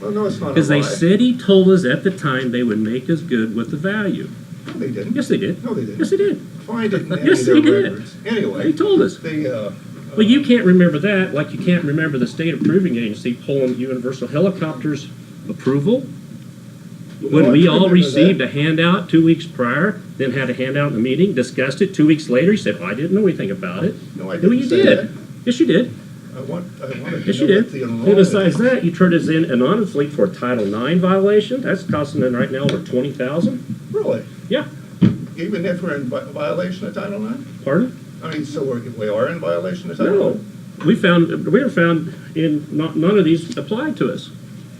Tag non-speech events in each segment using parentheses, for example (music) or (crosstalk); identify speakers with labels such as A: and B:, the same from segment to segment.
A: Well, no, it's not a lie.
B: Because they said he told us at the time they would make us good with the value.
A: No, they didn't.
B: Yes, they did.
A: No, they didn't.
B: Yes, they did.
A: Find it in any
B: Yes,
A: of their
B: they did.
A: records. Anyway,
B: They told us.
A: the, uh,
B: Well, you can't remember that, like you can't remember the state approving agency pulling Universal Helicopters approval. When
A: Well, I
B: we
A: can
B: all
A: remember
B: received a handout two weeks prior, then had a handout in the meeting, discussed it, two weeks later, you said, well, I didn't know anything about it.
A: no, I
B: No,
A: didn't
B: you
A: say that.
B: did. Yes, you did.
A: I want, I wanted
B: Yes,
A: to
B: you
A: know what
B: did.
A: the
B: And besides
A: enrollment.
B: that, you turned us in anonymously for a Title IX violation. That's costing them right now over twenty thousand.
A: Really?
B: Yeah,
A: Even if we're in vi- violation of Title IX?
B: pardon?
A: I mean, so we're, we are in violation of Title
B: No,
A: IX?
B: we found, we were found in, not, none of these applied to us.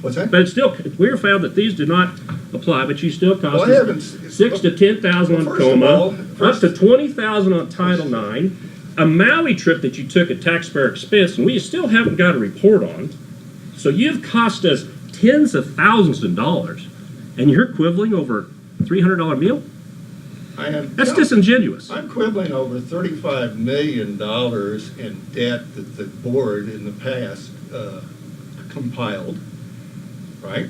A: What's that?
B: But it's still, we were found that these do not apply, but you still
A: Well,
B: cost
A: I haven't.
B: us
A: s-
B: six to ten thousand
A: Well,
B: on
A: first of all,
B: coma, up
A: first-
B: to twenty thousand on Title IX, a Maui trip that you took at taxpayer expense, and we still haven't got a report on. So you've cost us tens of thousands of dollars, and you're quibbling over a three hundred dollar meal?
A: I am.
B: That's
A: no,
B: disingenuous.
A: I'm quibbling over thirty-five million dollars in debt that the board in the past uh, compiled, right?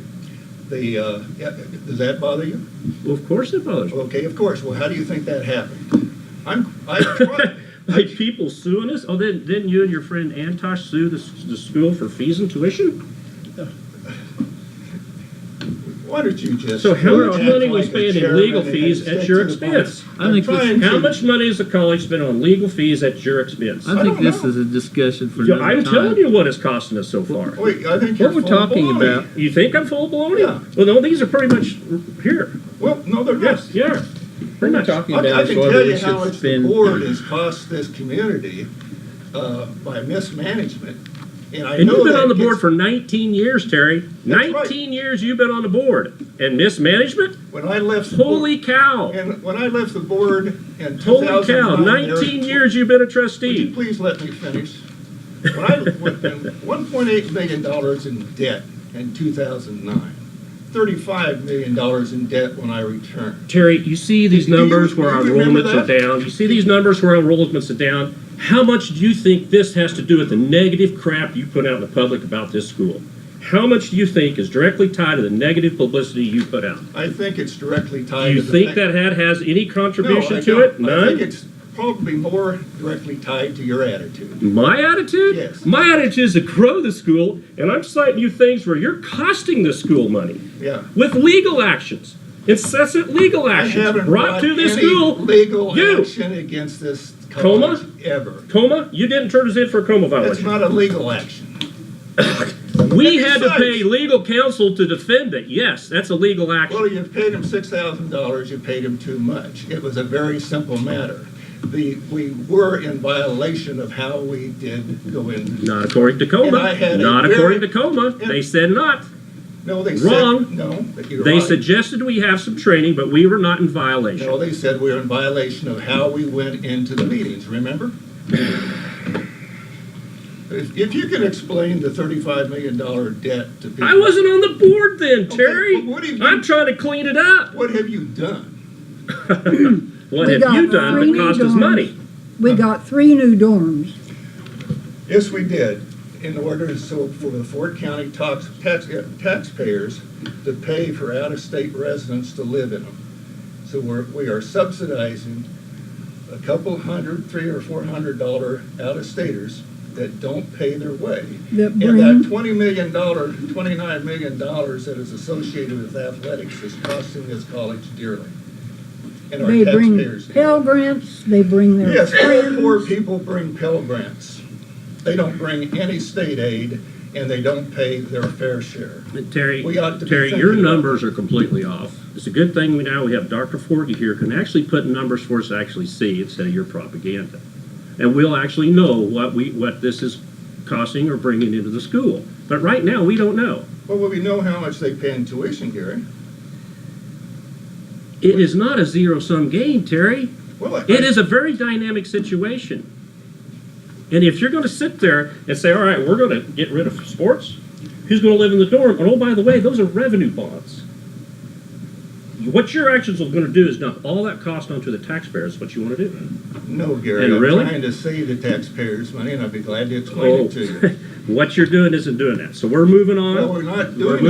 A: The, uh, yeah, does that bother you?
B: Well, of course it bothers me.
A: Okay, of course. Well, how do you think that happened? I'm, I,
B: (laughs) Like people suing us? Oh, then, didn't you and your friend Antosh sue the, s- the school for fees and tuition?
A: why don't you just?
B: So how much
A: act
B: money
A: like
B: was
A: a
B: spent in
A: chairman
B: legal
A: and
B: fees
A: stick
B: at your
A: to the point?
B: expense?
A: I'm
C: I think this-
A: trying
B: How
A: to-
B: much money has the college spent on legal fees at your expense?
C: I
A: I
C: think
A: don't
C: this
A: know.
C: is a discussion for
B: Yeah,
C: another
B: I'm
C: time.
B: telling you what it's costing us so far.
A: Wait, I think you're
C: What we're
A: full
C: talking
A: baloney.
C: about,
B: You think I'm full blown?
A: Yeah.
B: Well, no, these are pretty much here.
A: Well, no, they're not.
B: Yes, yeah.
C: what
B: Pretty
C: we're
B: much.
C: talking
A: I- I
C: about is
A: can
C: whether
A: tell you
C: we
A: how
C: should
A: much the
C: spend.
A: board has cost this community uh, by mismanagement. And I
B: And
A: know
B: you've been
A: that
B: on the board
A: gets-
B: for 19 years, Terry.
A: That's right.
B: 19 years you've been on the board. And mismanagement?
A: When I left. the board-
B: Holy cow.
A: And when I left the board in 2009.
B: Holy cow.
A: there-
B: 19 years you've been a
A: Would you
B: trustee.
A: please let me finish? When I, one point eight million dollars in debt in two thousand nine. Thirty-five million dollars in debt when I returned.
B: Terry, you see these
A: Do you-
B: numbers
A: do
B: where our
A: you remember
B: enrollments are
A: that?
B: down. You see these numbers where our enrollments are down. How much do you think this has to do with the negative crap you put out in the public about this school? How much do you think is directly tied to the negative publicity you put out?
A: I think it's directly
B: Do
A: tied.
B: you
A: to the
B: think
A: fact-
B: that had has any
A: No, I
B: contribution to
A: don't.
B: it?
A: I think
B: None?
A: it's probably more directly tied to your attitude.
B: My attitude?
A: Yes.
B: My attitude is to grow the school, and I'm citing you things where you're costing the school money
A: Yeah.
B: with legal actions, incessant legal
A: I
B: actions
A: haven't
B: brought to this
A: any
B: school.
A: Legal
B: You.
A: action against this
B: Coma?
A: college ever.
B: Coma? You didn't turn us in for a coma
A: That's
B: violation.
A: not a legal action.
B: We
A: And
B: had to
A: besides-
B: pay legal counsel to defend it. Yes, that's a legal action.
A: Well, you paid him six thousand dollars, you paid him too much. It was a very simple matter. The, we were in violation of how we did go in.
B: Not according to
A: And I
B: coma.
A: had a
B: Not
A: very-
B: according to coma.
A: and-
B: They said not.
A: No, they
B: Wrong.
A: said, no, but you're
B: They
A: right.
B: suggested we have some training, but we were not in violation.
A: No, they said we were in violation of how we went into the meetings, remember? If, if you can explain the thirty-five million dollar debt to people.
B: I wasn't on the board then,
A: Okay,
B: Terry.
A: but what have you-
B: I'm trying to clean it up.
A: What have you done?
B: What
D: We
B: have
D: got
B: you done
D: three
B: that cost us
D: dorms.
B: money?
D: We got three new dorms.
A: Yes, we did, in order to, so for the Fort County tax, tax, taxpayers to pay for out-of-state residents to live in them. So we're, we are subsidizing a couple hundred, three or four hundred dollar out-of-staters that don't pay their way.
D: That
A: And that
D: bring-
A: twenty million dollar, twenty-nine million dollars that is associated with athletics is costing this college dearly. And our
D: They bring
A: taxpayers. dearly.
D: Pell Grants, they bring their
A: Yes, all poor
D: friends.
A: people bring Pell Grants. They don't bring any state aid, and they don't pay their fair share.
B: And Terry,
A: We ought to be
B: Terry,
A: thinking
B: your
A: about that.
B: numbers are completely off. It's a good thing we now we have Dr. Forgy here can actually put numbers for us to actually see instead of your propaganda. And we'll actually know what we, what this is costing or bringing into the school. But right now, we don't know.
A: Well, we know how much they pay in tuition, Gary.
B: It is not a zero-sum game, Terry.
A: Well, I-
B: It is a very dynamic situation. And if you're going to sit there and say, all right, we're going to get rid of sports, who's going to live in the dorm? And oh, by the way, those are revenue bonds. What your actions are going to do is dump all that cost onto the taxpayers, what you want to do.
A: No, Gary,
B: And
A: I'm
B: really?
A: trying to save the taxpayers' money, and I'd be glad to explain
B: Oh, (laughs)
A: it to you.
B: what you're doing isn't doing that. So we're moving on.
A: Well, we're not doing